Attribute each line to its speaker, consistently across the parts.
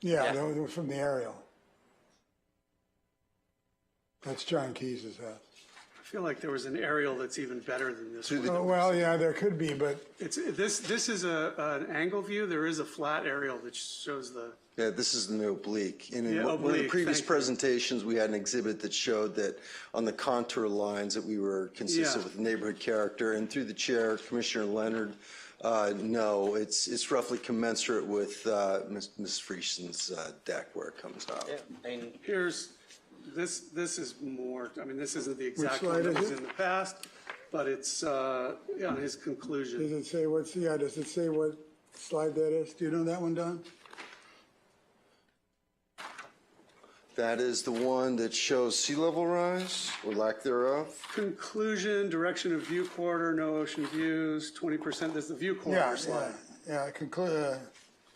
Speaker 1: Yeah,
Speaker 2: Yeah.
Speaker 1: that was from the aerial. That's John Keyes's house.
Speaker 3: I feel like there was an aerial that's even better than this one.
Speaker 1: Oh, well, yeah, there could be, but
Speaker 3: It's, this, this is a, an angle view. There is a flat aerial that shows the,
Speaker 2: Yeah, this is in the oblique. And in
Speaker 3: Yeah,
Speaker 2: one one of the
Speaker 3: oblique,
Speaker 2: previous
Speaker 3: thank you.
Speaker 2: presentations, we had an exhibit that showed that on the contour lines that we were consistent
Speaker 3: Yeah.
Speaker 2: with neighborhood character. And through the chair, Commissioner Leonard, uh, no, it's, it's roughly commensurate with uh, Ms. Ms. Friesen's uh, deck where it comes out.
Speaker 4: And
Speaker 3: here's, this, this is more, I mean, this isn't the exact
Speaker 1: slide
Speaker 3: one that
Speaker 1: is
Speaker 3: was
Speaker 1: it?
Speaker 3: in the past, but it's, uh, on his conclusion.
Speaker 1: does it say what's, yeah, does it say what slide that is? Do you know that one, Don?
Speaker 2: That is the one that shows sea level rise or lack thereof.
Speaker 3: Conclusion, direction of view quarter, no ocean views, twenty percent, that's the view
Speaker 1: Yeah,
Speaker 3: quarter
Speaker 1: yeah,
Speaker 3: Oh, slide.
Speaker 1: yeah, conclude, uh,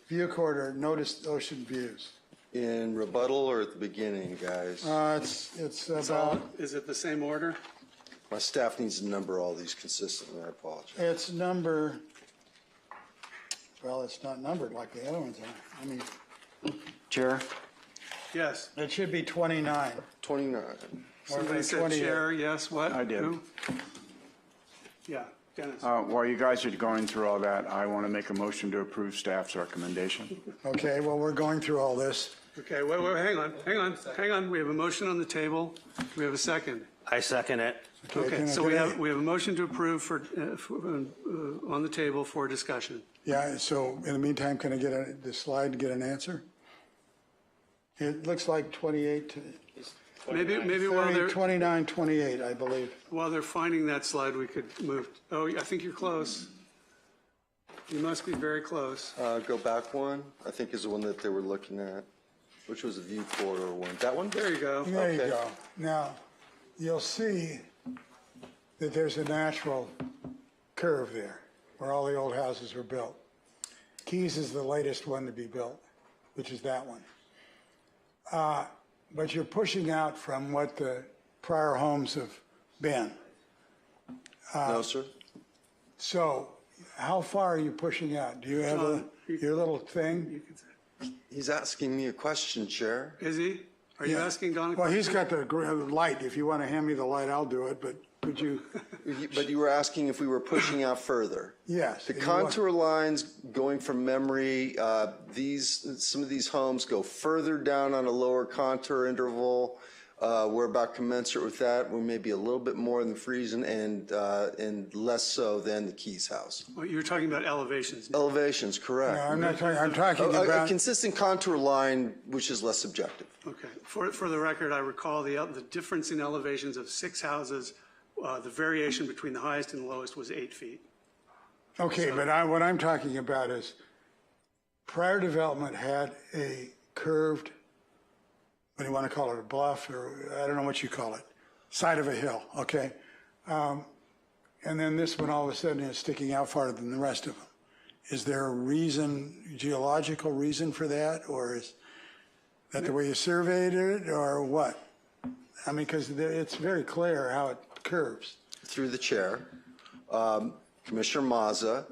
Speaker 1: view quarter, noticed ocean views.
Speaker 2: In rebuttal or at the beginning, guys?
Speaker 1: Uh, it's, it's
Speaker 3: So,
Speaker 1: about,
Speaker 3: is it the same order?
Speaker 2: My staff needs to number all these consistently, I apologize.
Speaker 1: it's number, well, it's not numbered like the other ones are. I mean,
Speaker 5: Chair,
Speaker 3: Yes.
Speaker 1: it should be 29.
Speaker 2: 29.
Speaker 1: or
Speaker 3: Somebody said
Speaker 1: 28.
Speaker 3: chair, yes, what?
Speaker 5: I did.
Speaker 3: Who? Yeah, Dennis.
Speaker 5: uh, while you guys are going through all that, I want to make a motion to approve staff's recommendation.
Speaker 1: Okay, well, we're going through all this.
Speaker 3: Okay, wait, wait, hang on, hang on, hang on. We have a motion on the table. We have a second.
Speaker 4: I second it.
Speaker 3: Okay,
Speaker 1: can I-
Speaker 3: so we
Speaker 1: can I-
Speaker 3: have, we have a motion to approve for, uh, for, uh, on the table for discussion.
Speaker 1: Yeah, so in the meantime, can I get a- the slide to get an answer? It looks like 28, to-
Speaker 3: Maybe, maybe while
Speaker 1: 30,
Speaker 3: they're,
Speaker 1: 29, 28, I believe.
Speaker 3: while they're finding that slide, we could move, oh, I think you're close. You must be very close.
Speaker 2: Uh, Go back one, I think is the one that they were looking at, which was the view corridor oh one. That one?
Speaker 3: There you go.
Speaker 1: There you
Speaker 2: Okay.
Speaker 1: go. Now, you'll see that there's a natural curve there where all the old houses were built. Keys is the latest one to be built, which is that one. Uh, But you're pushing out from what the prior homes have been. Uh,
Speaker 2: No, sir?
Speaker 1: So how far are you pushing out? Do you have a,
Speaker 3: John, you-
Speaker 1: your little thing?
Speaker 3: You can say-
Speaker 2: He's asking me a question, Chair.
Speaker 3: Is he? Are you
Speaker 1: Yeah.
Speaker 3: asking Don a
Speaker 1: Well,
Speaker 3: question?
Speaker 1: he's got the gr- light. If you want to hand me the light, I'll do it, but could you,
Speaker 2: You- But you were asking if we were pushing out further.
Speaker 1: yes.
Speaker 2: The
Speaker 1: if you want-
Speaker 2: contour lines going from memory, uh, these, some of these homes go further down on a lower contour interval. Uh, We're about commensurate with that. We may be a little bit more than Friesen and, uh, and less so than the Keys House.
Speaker 3: Well, oh, You were talking about elevations.
Speaker 2: Elevations, correct.
Speaker 1: No, I'm not talking, I'm talking
Speaker 2: A- A, a
Speaker 1: about,
Speaker 2: consistent contour line, which is less subjective.
Speaker 3: Okay. For, for the record, I recall the, el- the difference in elevations of six houses, uh, the variation between the highest and lowest was eight feet.
Speaker 1: okay, but I, what I'm talking about is prior development had a curved, what do you want to call it, a bluff, or I don't know what you call it, side of a hill, okay? Um, And then this one all of a sudden is sticking out farther than the rest of them. Is there a reason, geological reason for that, or is that the way you surveyed it, or what? I mean, because it's very clear how it curves.
Speaker 2: Through the chair, um, Commissioner Mazza,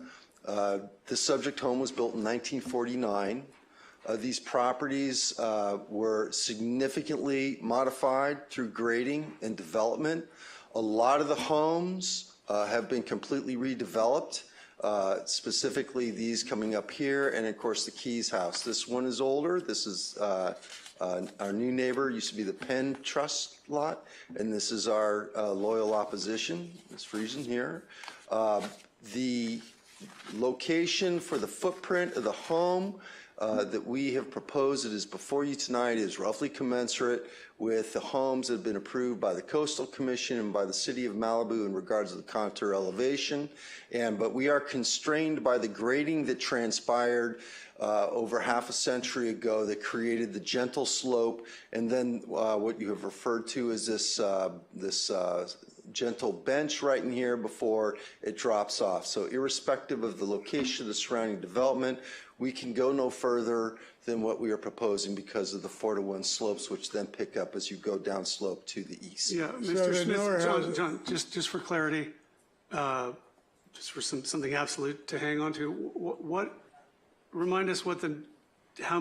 Speaker 2: uh, the subject home was built in 1949. Uh, These properties uh, were significantly modified through grading and development. A lot of the homes uh, have been completely redeveloped, uh, specifically these coming up here, and of course, the Keys House. This one is older, this is uh, uh, our new neighbor, used to be the Penn Trust lot, and this is our uh, loyal opposition, Ms. Friesen here. Uh, The location for the footprint of the home uh, that we have proposed that is before you tonight is roughly commensurate with the homes that have been approved by the Coastal Commission and by the City of Malibu in regards to the contour elevation. And, but we are constrained by the grading that transpired uh, over half a century ago that created the gentle slope and then uh, what you have referred to as this, uh, this uh, gentle bench right in here before it drops off. So irrespective of the location of the surrounding development, we can go no further than what we are proposing because of the four to one slopes, which then pick up as you go down slope to the east.
Speaker 3: Yeah,
Speaker 1: there
Speaker 3: Mr. Smith,
Speaker 1: never
Speaker 3: John,
Speaker 1: has-
Speaker 3: John, just, just for clarity, uh, just for some, something absolute to hang on to, wh- what, remind us what the, how